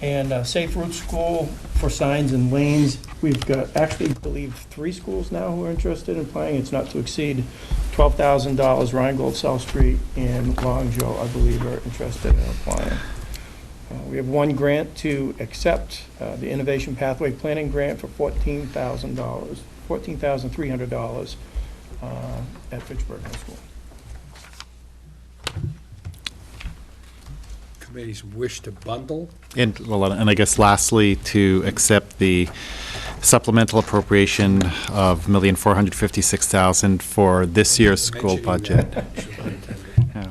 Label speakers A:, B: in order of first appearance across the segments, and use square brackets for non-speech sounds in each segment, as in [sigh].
A: And uh, Safe Route School for signs and lanes, we've got, actually, I believe, three schools now who are interested in playing. It's not to exceed $12,000. Rheingold, South Street, and Long Joe, I believe, are interested in applying. Uh, We have one grant to accept, uh, the Innovation Pathway Planning Grant for $14,000, $14,300 uh, at Fitchburg High School.
B: Committees wish to bundle?
C: And, well, and I guess lastly, to accept the supplemental appropriation of million four hundred fifty-six thousand for this year's school
B: Mentioning
C: budget.
B: that, Superintendent.
C: Yeah.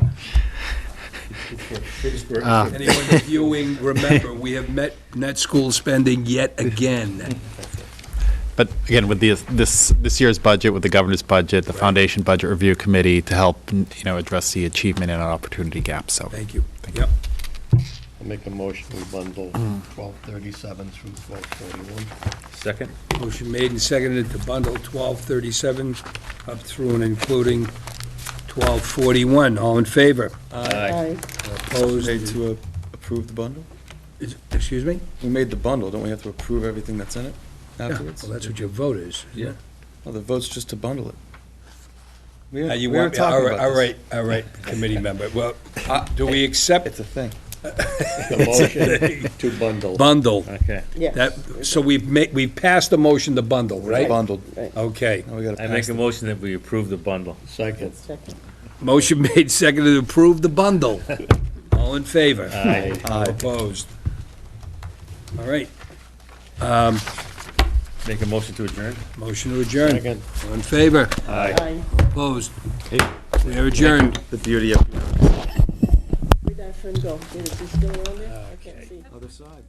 B: Uh, Anyone viewing, remember, we have met net school spending yet again.
C: But again, with the, this, this year's budget, with the governor's budget, the foundation budget review committee to help, you know, address the achievement and opportunity gap, so.
B: Thank you. Yep.
D: I'll make a motion, we bundle twelve thirty-seven through twelve forty-one.
E: Second?
B: Motion made and seconded to bundle 1237 up through and including 1241. All in favor?
E: Aye.
B: Opposed?
F: Made to uh, approve the bundle?
B: Is- Excuse me?
F: We made the bundle, don't we have to approve everything that's in
B: Yeah.
F: it
B: Well,
F: afterwards?
B: that's what your vote is.
F: Yeah. Oh, the vote's just to bundle it. We
B: Now,
F: had- we
B: you
F: were
B: want, all
F: talking
B: right, all
F: about this.
B: right, all right, committee member. [laughs] Well, uh, do we accept
F: It's a thing.
D: The motion to bundle.
B: bundle?
E: Okay.
B: That, so we've made, we've passed the motion to bundle, right?
F: Bundled.
B: Okay.
F: Now we gotta
E: I make
F: pass
E: a
F: it.
E: motion that we approve the bundle.
D: Second.
B: Motion [laughs] made, seconded, to approve the bundle. All in favor?
E: Aye.
F: Aye.
B: Opposed? All right,
E: Make a motion to adjourn?
B: motion to adjourn.
D: Second.
B: All in favor?
E: Aye.
B: Opposed? We are adjourned.
F: The beauty of
G: Where'd our friend go? Is he still on there? I can't see.
F: other side.